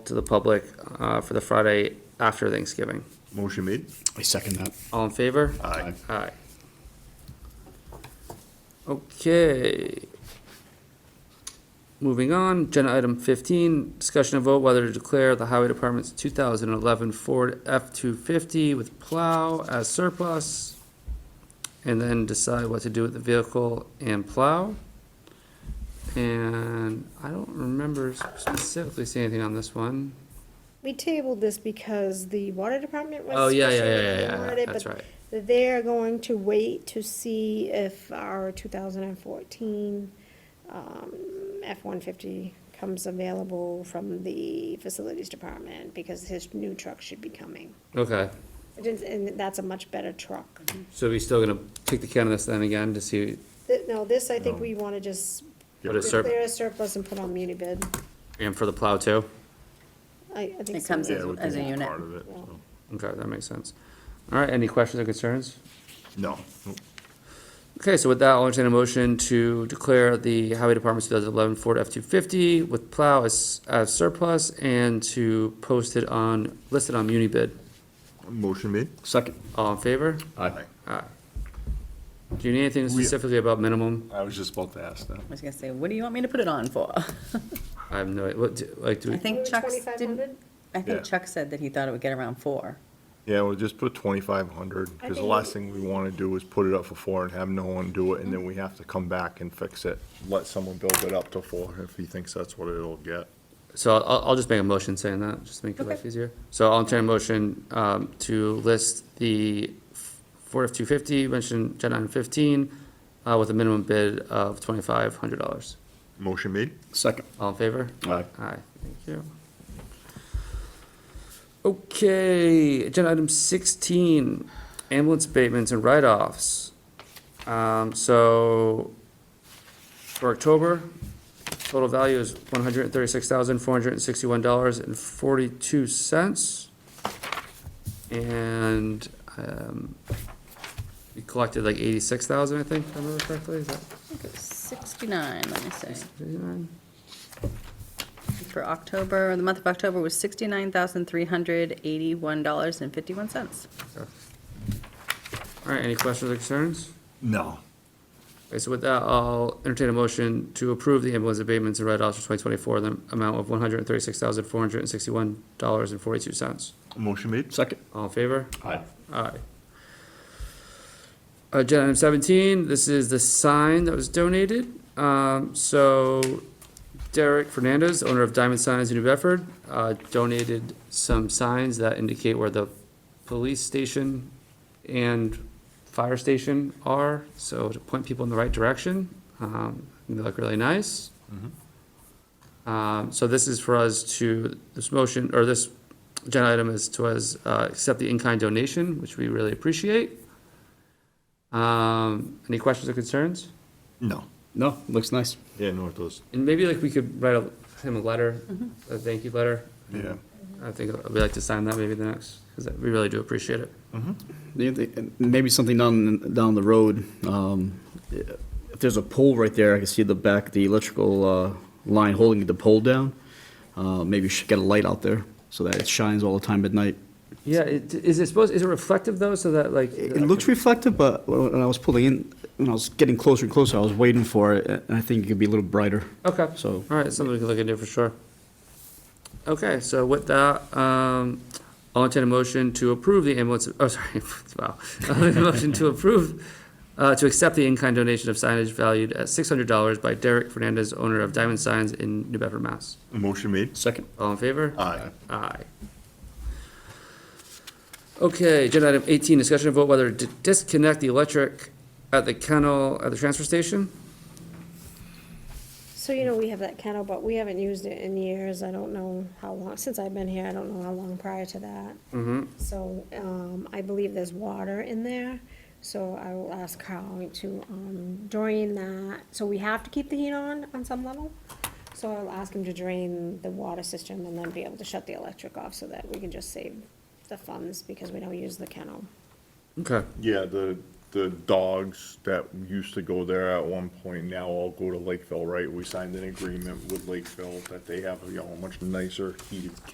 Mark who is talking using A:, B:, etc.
A: to the public uh, for the Friday after Thanksgiving.
B: Motion made.
C: I second that.
A: All in favor?
B: Aye.
A: Aye. Okay. Moving on, agenda item fifteen, discussion of vote whether to declare the highway department's two thousand and eleven Ford F two fifty with plow as surplus. And then decide what to do with the vehicle and plow. And I don't remember specifically seeing anything on this one.
D: We tabled this because the water department was.
A: Oh, yeah, yeah, yeah,
D: specially
A: yeah, yeah, yeah,
D: awarded,
A: that's
D: but
A: right.
D: They're going to wait to see if our two thousand and fourteen, um, F one fifty comes available from the facilities department, because his new truck should be coming.
A: Okay,
D: It is- And that's a much better truck.
A: so we still gonna kick the can of this then again to see
D: Th- No, this, I think
B: No.
D: we wanna just
A: what it's surplus,
D: declare a surplus and put on muni bid.
A: and for the plow too?
D: I, I think.
E: It
D: so.
E: comes
B: Yeah, we
E: As a
B: can be
E: unit.
B: part of it, so.
A: Okay, that makes sense. All right, any questions or concerns?
B: No.
A: Okay, so with that, I'll entertain a motion to declare the Highway Department's two thousand eleven Ford F two fifty with plow as, as surplus and to post it on, listed on muni bid.
B: Motion made.
C: Second.
A: All in favor?
B: Aye.
A: Aye. Do you need anything specifically about minimum?
B: I was just about to ask that.
E: I was gonna say, what do you want me to put it on for?
A: I have no, what, do- like, do
E: I
A: we,
E: think Chuck's, didn't,
D: 2,500?
E: I
B: Yeah.
E: think Chuck said that he thought it would get around four.
B: Yeah, we'll just put twenty-five hundred,
D: I
B: because the
D: think-
B: last thing we want to do is put it up for four and have no one do it, and then we have to come back and fix it. Let someone build it up to four if he thinks that's what it'll get.
A: so I'll, I'll just make a motion saying that, just to make your
E: Okay.
A: life easier. So I'll entertain a motion, um, to list the Ford F two fifty mentioned agenda item fifteen, uh, with a minimum bid of twenty-five hundred dollars.
B: Motion made.
C: Second.
A: All in favor?
C: Aye.
A: Aye, thank you. Okay, agenda item sixteen, ambulance abatements and write-offs. Um, so, for October, total value is one hundred and thirty-six thousand, four hundred and sixty-one dollars and forty-two cents. And, um, we collected like eighty-six thousand, I think, if I remember correctly, is that
E: I think it was sixty-nine, let me say.
A: eighty-nine?
E: For October, the month of October was sixty-nine thousand three hundred eighty-one dollars and fifty-one cents.
A: All right, any questions or concerns?
B: No.
A: Okay, so with that, I'll entertain a motion to approve the ambulance abatements and write-offs for twenty twenty-four, the amount of one hundred and thirty-six thousand, four hundred and sixty-one dollars and forty-two cents.
B: Motion made.
C: Second.
A: All in favor?
C: Aye.
A: Aye. Agenda item seventeen, this is the sign that was donated. Um, so Derek Fernandez, owner of Diamond Signs in New Bedford, uh, donated some signs that indicate where the police station and fire station are, so to point people in the right direction. Um, and they look really nice. Um, so this is for us to, this motion, or this agenda item is to us, uh, accept the in-kind donation, which we really appreciate. Um, any questions or concerns?
B: No.
C: No, looks nice.
B: Yeah, no, it does.
A: And maybe like we could write a- him a letter, a thank you letter.
B: Yeah.
A: I think I'd like to sign that maybe the next, because we really do appreciate it.
C: The- the- Maybe something down, down the road, um, if there's a pole right there, I can see the back, the electrical, uh, line holding the pole down. Uh, maybe you should get a light out there so that it shines all the time at night.
A: Yeah, it- is it supposed, is it reflective though, so that like?
C: It it looks reflective, but when when I was pulling in, when I was getting closer and closer, I was waiting for it, and I think it could be a little brighter.
A: Okay.
C: So-
A: All right, something we can look into for sure. Okay, so with that, um, I'll entertain a motion to approve the ambulance, oh, sorry, wow. I'll entertain a motion to approve, uh, to accept the in-kind donation of signage valued at six hundred dollars by Derek Fernandez, owner of Diamond Signs in New Bedford, Mass.
B: Motion made.
C: Second.
A: All in favor?
B: Aye.
A: Aye. Okay, agenda item eighteen, discussion of vote whether to disconnect the electric at the kennel at the transfer station?
D: So, you know, we have that kennel, but we haven't used it in years. I don't know how long, since I've been here, I don't know how long prior to that.
A: Mm-hmm.
D: So, um, I believe there's water in there, so I will ask Carl to, um, drain that. So we have to keep the heat on, on some level. So I'll ask him to drain the water system and then be able to shut the electric off so that we can just save the funds because we don't use the kennel.
A: Okay.
B: Yeah, the, the dogs that used to go there at one point now all go to Lakeville, right? We signed an agreement with Lakeville that they have a you know, much nicer heated